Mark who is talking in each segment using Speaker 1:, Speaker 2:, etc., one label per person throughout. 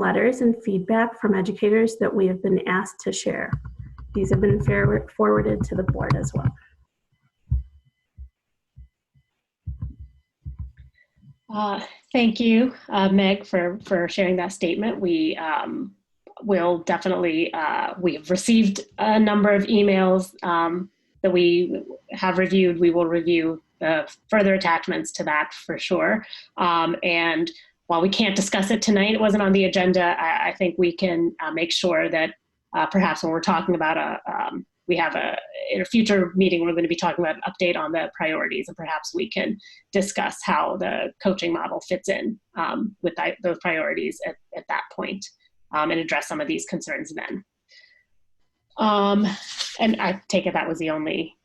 Speaker 1: letters and feedback from educators that we have been asked to share. These have been fair- forwarded to the board as well.
Speaker 2: Uh, Thank you, uh, Meg, for, for sharing that statement. We um, will definitely, uh, we have received a number of emails um, that we have reviewed. We will review the further attachments to that for sure. Um, And while we can't discuss it tonight, it wasn't on the agenda, I, I think we can uh, make sure that uh, perhaps when we're talking about a, um, we have a, in a future meeting, we're going to be talking about an update on the priorities and perhaps we can discuss how the coaching model fits in um, with that, those priorities at, at that point, um, and address some of these concerns then. Um, and I take it that was the only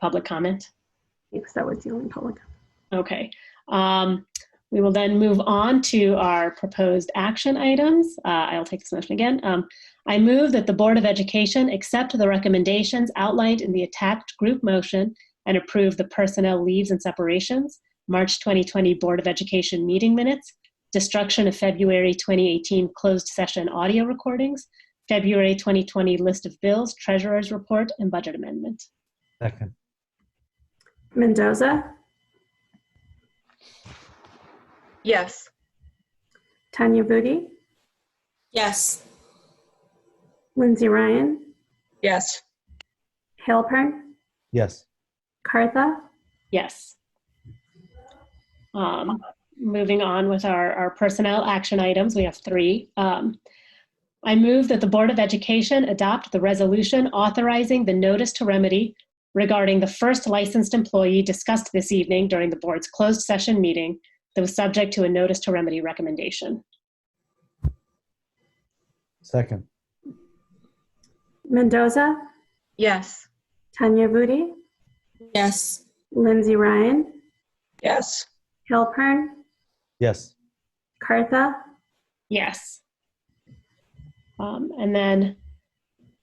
Speaker 2: public comment.
Speaker 1: Yes, that was the only public.
Speaker 2: Okay. Um, we will then move on to our proposed action items. Uh, I'll take this motion again. Um, I move that the Board of Education accept the recommendations outlined in the attached group motion and approve the personnel leaves and separations, March 2020 Board of Education meeting minutes, destruction of February 2018 closed session audio recordings, February 2020 list of bills, treasurer's report, and budget amendment.
Speaker 3: Second,
Speaker 1: Mendoza,
Speaker 4: Yes.
Speaker 1: Tanya Vudi,
Speaker 5: Yes.
Speaker 1: Lindsay Ryan,
Speaker 4: Yes.
Speaker 1: Halpern,
Speaker 3: yes,
Speaker 1: Cartha,
Speaker 2: Yes. Um, Moving on with our, our personnel action items, we have three. Um, I move that the Board of Education adopt the resolution authorizing the notice to remedy regarding the first licensed employee discussed this evening during the board's closed session meeting that was subject to a notice to remedy recommendation.
Speaker 3: second,
Speaker 1: Mendoza,
Speaker 4: Yes.
Speaker 1: Tanya Vudi,
Speaker 5: Yes.
Speaker 1: Lindsay Ryan,
Speaker 4: Yes.
Speaker 1: Halpern,
Speaker 3: yes,
Speaker 1: Cartha,
Speaker 2: Yes. Um, and then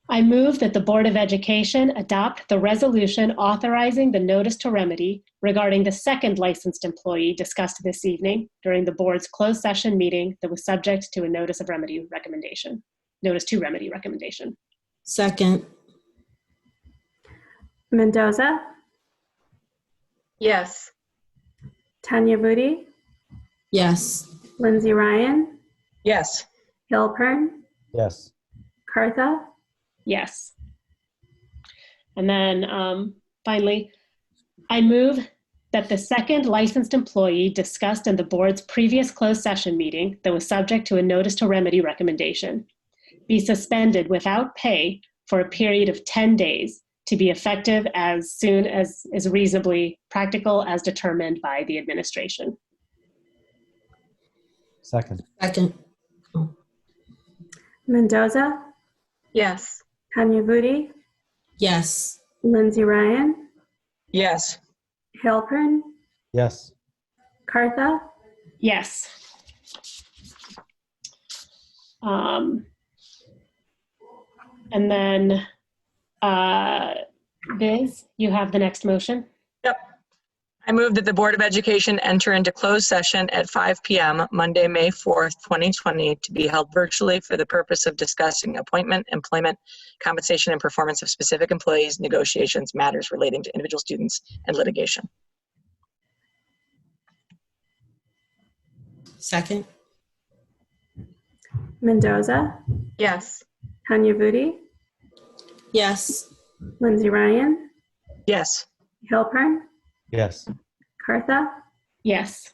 Speaker 2: I move that the Board of Education adopt the resolution authorizing the notice to remedy regarding the second licensed employee discussed this evening during the board's closed session meeting that was subject to a notice of remedy recommendation, notice to remedy recommendation.
Speaker 5: Second.
Speaker 1: Mendoza,
Speaker 4: Yes.
Speaker 1: Tanya Vudi,
Speaker 5: Yes.
Speaker 1: Lindsay Ryan,
Speaker 4: Yes.
Speaker 1: Halpern,
Speaker 3: yes,
Speaker 1: Cartha,
Speaker 2: Yes. And then um, finally, I move that the second licensed employee discussed in the board's previous closed session meeting that was subject to a notice to remedy recommendation be suspended without pay for a period of 10 days to be effective as soon as is reasonably practical as determined by the administration.
Speaker 3: second,
Speaker 5: Second.
Speaker 1: Mendoza,
Speaker 4: Yes.
Speaker 1: Tanya Vudi,
Speaker 5: Yes.
Speaker 1: Lindsay Ryan,
Speaker 4: Yes.
Speaker 1: Halpern,
Speaker 3: yes,
Speaker 1: Cartha,
Speaker 2: Yes. Um, and then, uh, Viz, you have the next motion.
Speaker 4: I move that the Board of Education enter into closed session at 5 PM, Monday, May 4th, 2020, to be held virtually for the purpose of discussing appointment, employment, compensation, and performance of specific employees, negotiations, matters relating to individual students, and litigation.
Speaker 5: Second.
Speaker 1: Mendoza,
Speaker 4: Yes.
Speaker 1: Tanya Vudi,
Speaker 5: Yes.
Speaker 1: Lindsay Ryan,
Speaker 4: Yes.
Speaker 1: Halpern,
Speaker 3: yes,
Speaker 1: Cartha,
Speaker 2: Yes.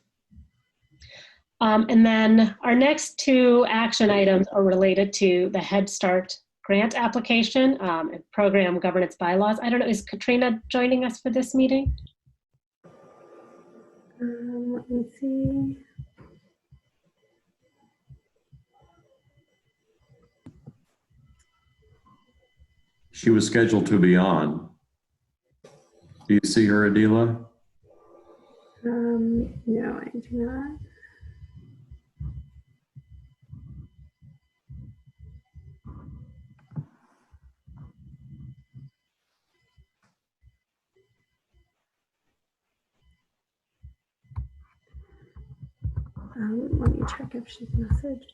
Speaker 2: Um, and then our next two action items are related to the Head Start grant application um, and program governance bylaws. I don't know, is Katrina joining us for this meeting?
Speaker 1: Um, let me see.
Speaker 6: She was scheduled to be on. Do you see her, Adela?
Speaker 1: Um, no, I do not. Um, let me check if she's messaged.